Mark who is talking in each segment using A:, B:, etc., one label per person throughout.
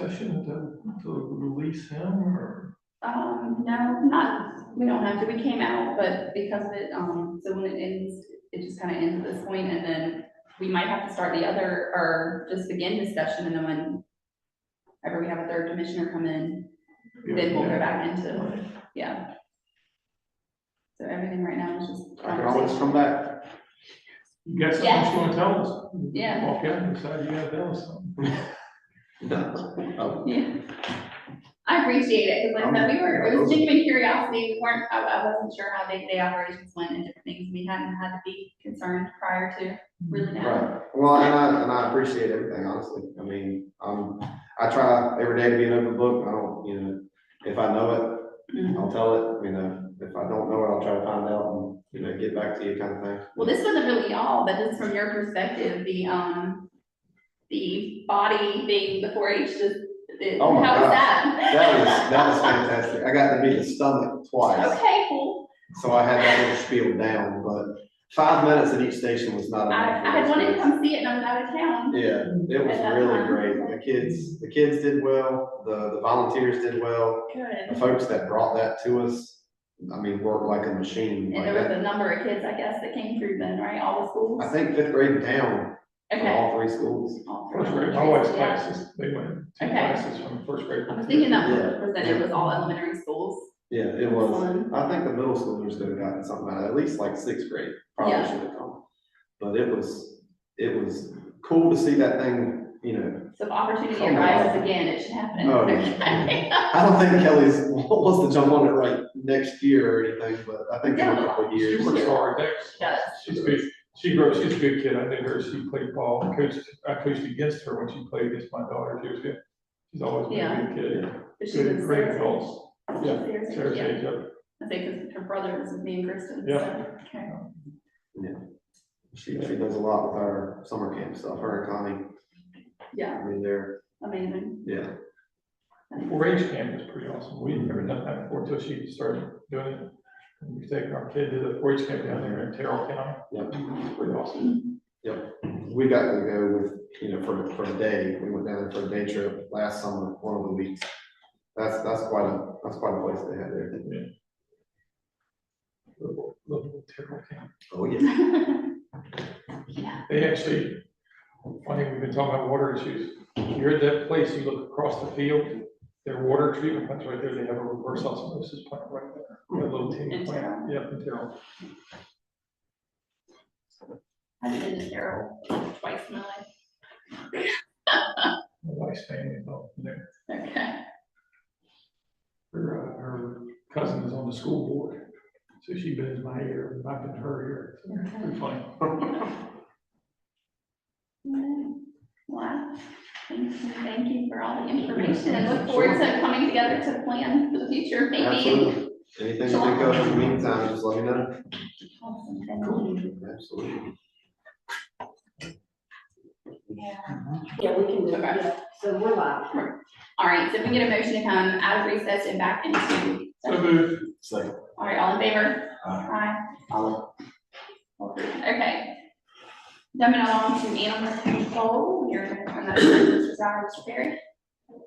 A: session to, to release him or?
B: Um, no, not, we don't have to, we came out, but because of it, um, so when it ends, it just kind of ends at this point, and then we might have to start the other, or just begin discussion, and then when ever we have a third commissioner come in, then we'll go back into,
A: Right.
B: yeah. So everything right now is just.
C: I can always come back.
A: You got something
B: Yeah.
A: else you wanna tell us?
B: Yeah.
A: Walk out and decide you gotta tell us something.
C: Oh,
B: Yeah. I appreciate it, because like I said, we were, it was genuine curiosity, we weren't, I, I wasn't sure how big the operations went and different things, we hadn't had to be concerned prior to, really now.
C: Right, well, and I, and I appreciate everything, honestly, I mean, um, I try every day to be an open book, I don't, you know, if I know it,
B: Mhm.
C: I'll tell it, you know, if I don't know it, I'll try to find out and, you know, get back to you kind of thing.
B: Well, this wasn't really all, but this from your perspective, the, um, the body thing, the four H, just, the, how
C: Oh my
B: was
C: gosh.
B: that?
C: That was, that was fantastic, I got to meet the stomach twice,
B: Okay, cool,
C: so I had that little spiel down, but five minutes at each station was not
B: I,
C: enough.
B: I had wanted to come see it, and I was out of town,
C: Yeah, it was really great, the kids, the kids did well, the, the volunteers did well, the
B: good,
C: folks that brought that to us, I mean, worked like a
B: and
C: machine. Like
B: there was
C: that.
B: a number of kids, I guess, that came through then, right, all the schools?
C: I think fifth grade down, from
B: Okay.
C: all three schools.
B: All three
A: First grade, my
B: elementary,
A: wife's
B: yeah.
A: classes, they went, two
B: Okay.
A: classes from first grade.
B: I was thinking that
C: Yeah.
B: was that it was all elementary schools. Um,
C: Yeah, it was.
B: Fun.
C: I think the middle schoolers could have gotten something out of it, at least like sixth grade,
B: Yeah.
C: probably should have come. But it was, it was cool to see that thing, you know,
B: So if opportunity
C: Something
B: arises
C: like-
B: again, it should happen.
C: Oh,
B: Okay.
C: I don't think Kelly's wants to jump on it right next year or anything, but I think in a couple of
A: She
C: years.
A: works hard, that's,
B: Does.
A: she's a good, she grew, she's a good kid, I knew her, she played ball, I coached, I coached against her when she played against my daughter, she was good. She's always been a good kid,
B: But she
A: good,
B: was
A: great
B: Sarah's age.
A: adults,
B: She was Sarah's age,
A: Sarah's
B: yeah.
A: age, yep.
B: I think 'cause her brother was with me and Kristen.
A: Yeah.
B: so, okay.
C: She, she does a lot with our summer camp stuff, her and
B: Yeah,
C: Connie, I mean, they're,
B: amazing.
C: yeah.
A: Four H camp is pretty awesome. We've never done that before till she started doing it. And We take our kid to the four H camp down there in Terrell County.
C: Yep.
A: It's pretty awesome.
C: We got to go with, you know, for, for a day, we went down there for a day trip last summer, one of the weeks. That's, that's quite a, that's quite a place they had there.
A: Little little Terrell County.
C: Oh, yeah.
B: Yeah,
A: They actually, funny, we've been talking about water issues. You're at that place, you look across the field, their water treatment plant's right there. They have a reverse osmosis plant right there. A little teeny
B: In
A: plant. Yeah, in Terrell.
B: I've been to Carol twice in my life.
A: My wife's family, well, their,
B: Okay.
A: her, uh, her cousin is on the school board. So she bends my ear, and I've been her ear. It's pretty funny.
B: Wow. Thank you, thank you for all the information and look forward to coming together to plan for the future, maybe.
C: Absolutely. Anything you think of in the meantime, just let me know.
B: Awesome, thank you.
C: Absolutely.
B: Yeah.
D: Yeah, we can do it, right? so we're live.
B: All right, so if we get a motion to come out of recess and back into.
A: So moved.
C: Second.
B: All right, all in favor?
C: Aye.
B: Okay. Dumbing along to animal control, you're gonna turn that over to Mr. Sauer, Mr. Perry. You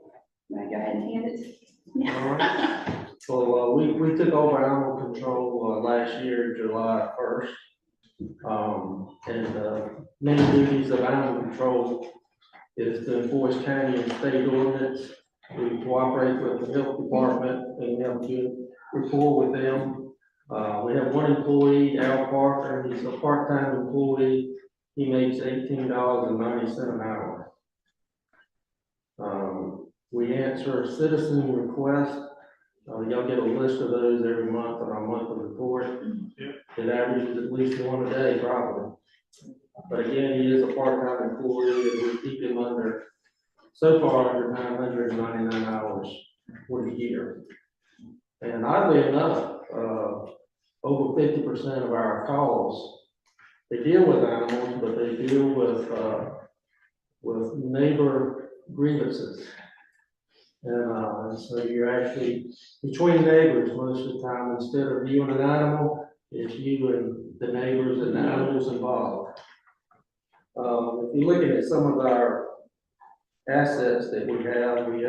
B: wanna go ahead and hand it? Yeah.
E: So, uh, we, we took over animal control, uh, last year, July first. Um, and, uh, main duties of animal control is to enforce county and state ordinance. We cooperate with the health department and have good rapport with them. Uh, we have one employee, Al Parker, he's a part-time employee. He makes eighteen dollars and ninety cent an hour. Um, we answer citizen requests uh, y'all get a list of those every month on our monthly report.
A: Yeah.
E: It averages at least one a day probably. But again, he is a part-time employee and we keep him under, so far, under nine hundred and ninety-nine hours for the year. And oddly enough, uh, over fifty percent of our calls, they deal with animals, but they deal with, uh, with neighbor grievances. And, uh, and so you're actually between neighbors most of the time, instead of you and an animal, it's you and the neighbors and the animals involved. Um, if you're looking at some of our assets that we have, we